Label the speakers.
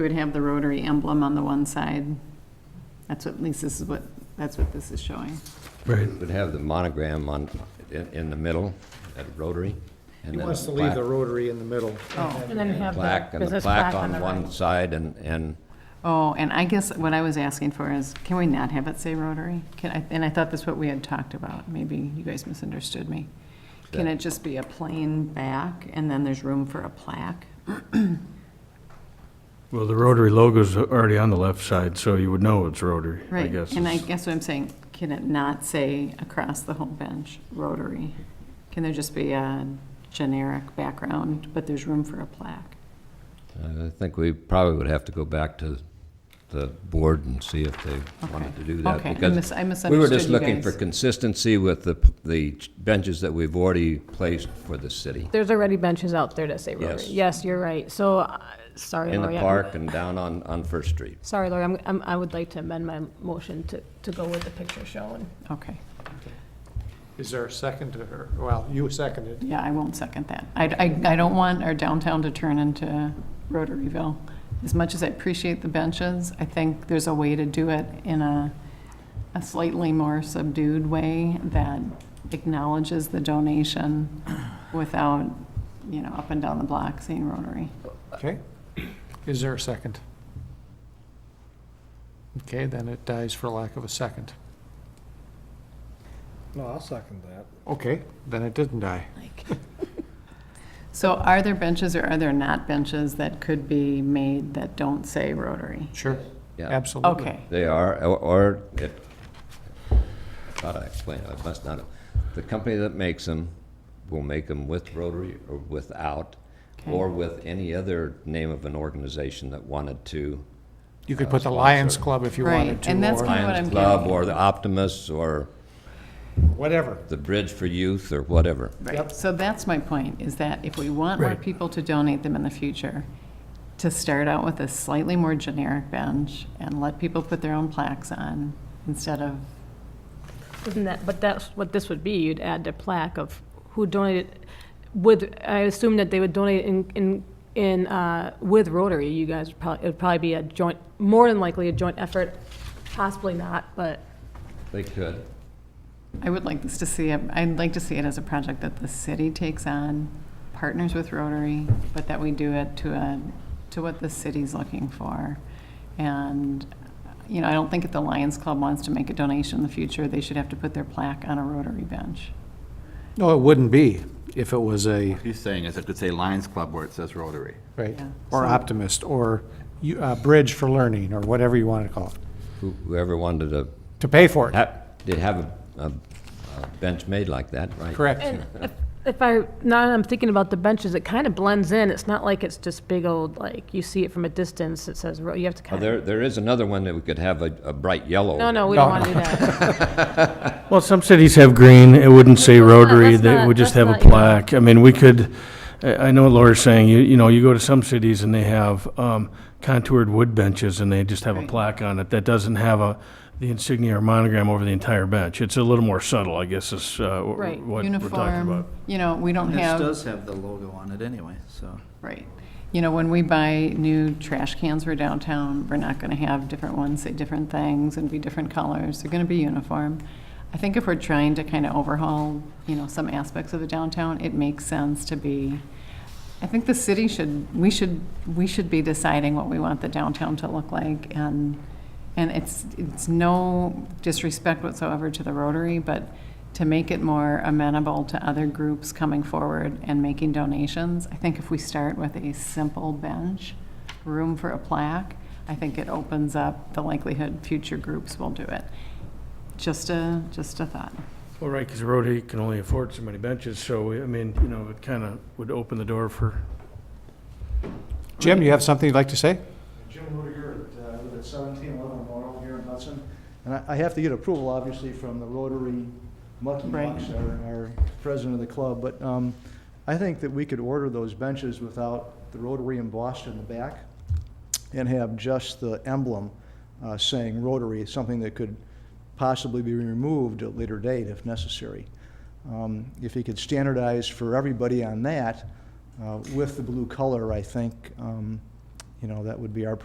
Speaker 1: We would have the rotary emblem on the one side. That's what, at least this is what, that's what this is showing.
Speaker 2: Right.
Speaker 3: Would have the monogram on, in, in the middle, at Rotary. and
Speaker 4: He
Speaker 3: then
Speaker 4: wants
Speaker 3: the
Speaker 4: to leave the
Speaker 3: plaque-
Speaker 4: rotary in the middle.
Speaker 1: Oh.
Speaker 5: And then have
Speaker 3: Plaque,
Speaker 5: the
Speaker 3: and the
Speaker 5: business
Speaker 3: plaque
Speaker 5: plaque
Speaker 3: on
Speaker 5: the right.
Speaker 3: one side and, and
Speaker 1: Oh, and I guess what I was asking for is, can we not have it say Rotary? Can I, and I thought that's what we had talked about. Maybe you guys misunderstood me. Can
Speaker 3: Yeah.
Speaker 1: it just be a plain back and then there's room for a plaque?
Speaker 2: Well, the Rotary logo's already on the left side, so you would know it's Rotary, I
Speaker 1: Right,
Speaker 2: guess.
Speaker 1: and I
Speaker 2: is-
Speaker 1: guess what I'm saying, can it not say across the whole bench, Rotary? Can there just be a generic background, but there's room for a plaque?
Speaker 3: uh, I think we probably would have to go back to the board and see if they wanted to do that.
Speaker 1: Okay, I
Speaker 3: because
Speaker 1: mis- I
Speaker 3: We were
Speaker 1: misunderstood
Speaker 3: just
Speaker 1: you
Speaker 3: looking for
Speaker 1: guys.
Speaker 3: consistency with the, p- the benches that we've already placed for the city.
Speaker 5: There's already benches out there that say Rotary.
Speaker 3: Yes.
Speaker 5: Yes, you're right. So, uh, sorry,
Speaker 3: In
Speaker 1: Oh,
Speaker 5: Lori.
Speaker 3: the
Speaker 5: I'm-
Speaker 3: park and down on, on First Street.
Speaker 5: Sorry, Lori, I'm- I'm, I would like to amend my motion to, to go with the picture shown.
Speaker 1: Okay,
Speaker 4: Is there a second to her? Well, you seconded.
Speaker 1: yeah, I won't second that. I, I, I don't want our downtown to turn into Rotaryville. As much as I appreciate the benches, I think there's a way to do it in a, a slightly more subdued way that acknowledges the donation without, you know, up and down the block saying Rotary.
Speaker 4: Okay. Is there a second? Okay, then it dies for lack of a second.
Speaker 6: No, I'll second that.
Speaker 4: Okay, then it didn't die.
Speaker 1: So are there benches or are there not benches that could be made that don't say Rotary?
Speaker 4: Sure,
Speaker 3: Yeah,
Speaker 4: absolutely.
Speaker 1: Okay,
Speaker 3: they are, or- or, it- how do I explain it? I must not, have- the company that makes them will make them with Rotary or without,
Speaker 1: Okay.
Speaker 3: or with any other name of an organization that wanted to.
Speaker 4: You could put the Lions Club if you wanted
Speaker 1: Right,
Speaker 4: to.
Speaker 1: and that's
Speaker 4: or-
Speaker 1: kind of what
Speaker 3: Lions
Speaker 1: I'm
Speaker 3: Club,
Speaker 1: getting
Speaker 3: or the Optimists, or
Speaker 6: Whatever.
Speaker 3: the Bridge for Youth, or whatever.
Speaker 1: right, so that's my point, is that if we want more
Speaker 2: Right.
Speaker 1: people to donate them in the future, to start out with a slightly more generic bench and let people put their own plaques on instead of,
Speaker 5: Isn't that, but that's what this would be. You'd add the plaque of who donated, with, I assume that they would donate in, in, in, uh, with Rotary. You guys would probably, it would probably be a joint, more than likely a joint effort, possibly not, but
Speaker 3: They could.
Speaker 1: I would like this to see, it- I'd like to see it as a project that the city takes on, partners with Rotary, but that we do it to a, to what the city's looking for. And, you know, I don't think if the Lions Club wants to make a donation in the future, they should have to put their plaque on a Rotary bench.
Speaker 4: No, it wouldn't be if it was a,
Speaker 7: He's saying is it could say Lions Club where it says Rotary.
Speaker 4: right,
Speaker 1: Yeah,
Speaker 4: or
Speaker 1: so-
Speaker 4: Optimist, or you- uh, Bridge for Learning, or whatever you want to call it,
Speaker 3: Who- Whoever wanted to,
Speaker 4: to pay for it.
Speaker 3: ha- did have a, a a bench made like that, right?
Speaker 4: Correct.
Speaker 5: If I, now that I'm thinking about the benches, it kind of blends in. It's not like it's just big old, like, you see it from a distance, it says, ro- you have to
Speaker 3: Uh,
Speaker 5: kind of.
Speaker 3: There, there is another one that we could have a, a bright yellow.
Speaker 5: No, no, we don't
Speaker 4: No.
Speaker 5: want to do that.
Speaker 2: Well, some cities have green, it wouldn't say
Speaker 5: Let's not-
Speaker 2: Rotary,
Speaker 5: let's
Speaker 2: they
Speaker 5: not-
Speaker 2: would just have
Speaker 5: let's
Speaker 2: a
Speaker 5: not, you know.
Speaker 2: plaque. I mean, we could, I, I know what Laura's saying, you, you know, you go to some cities and they have, um, contoured wood benches and they just have a
Speaker 1: Right.
Speaker 2: plaque on it that doesn't have a, the insignia or monogram over the entire bench. It's a little more subtle, I guess, is, uh, wh-
Speaker 5: Right.
Speaker 2: what we're talking
Speaker 1: Uniform,
Speaker 2: about.
Speaker 1: you know, we don't
Speaker 8: This
Speaker 1: have,
Speaker 8: does have the logo on it anyway, so.
Speaker 1: right. You know, when we buy new trash cans for downtown, we're not going to have different ones say different things and be different colors. They're going to be uniform. I think if we're trying to kind of overhaul, you know, some aspects of the downtown, it makes sense to be, I think the city should, we should, we should be deciding what we want the downtown to look like and, and it's, it's no disrespect whatsoever to the Rotary, but to make it more amenable to other groups coming forward and making donations, I think if we start with a simple bench, room for a plaque, I think it opens up the likelihood future groups will do it. Just a, just a thought.
Speaker 2: Well, right, because Rotary can only afford so many benches, so, we- I mean, you know, it kind of would open the door for
Speaker 4: Jim, you have something you'd like to say?
Speaker 6: Jim Rudiger, at, uh, I live at 1711 Laurel here in Hudson. And I- I have to get approval, obviously, from the Rotary Mucky
Speaker 1: Right.
Speaker 6: Mucks, our our president of the club. But um, I think that we could order those benches without the Rotary embossed in the back and have just the emblem uh, saying Rotary, something that could possibly be removed at a later date if necessary. Um, If you could standardize for everybody on that uh, with the blue color, I think, um, you know, that would be our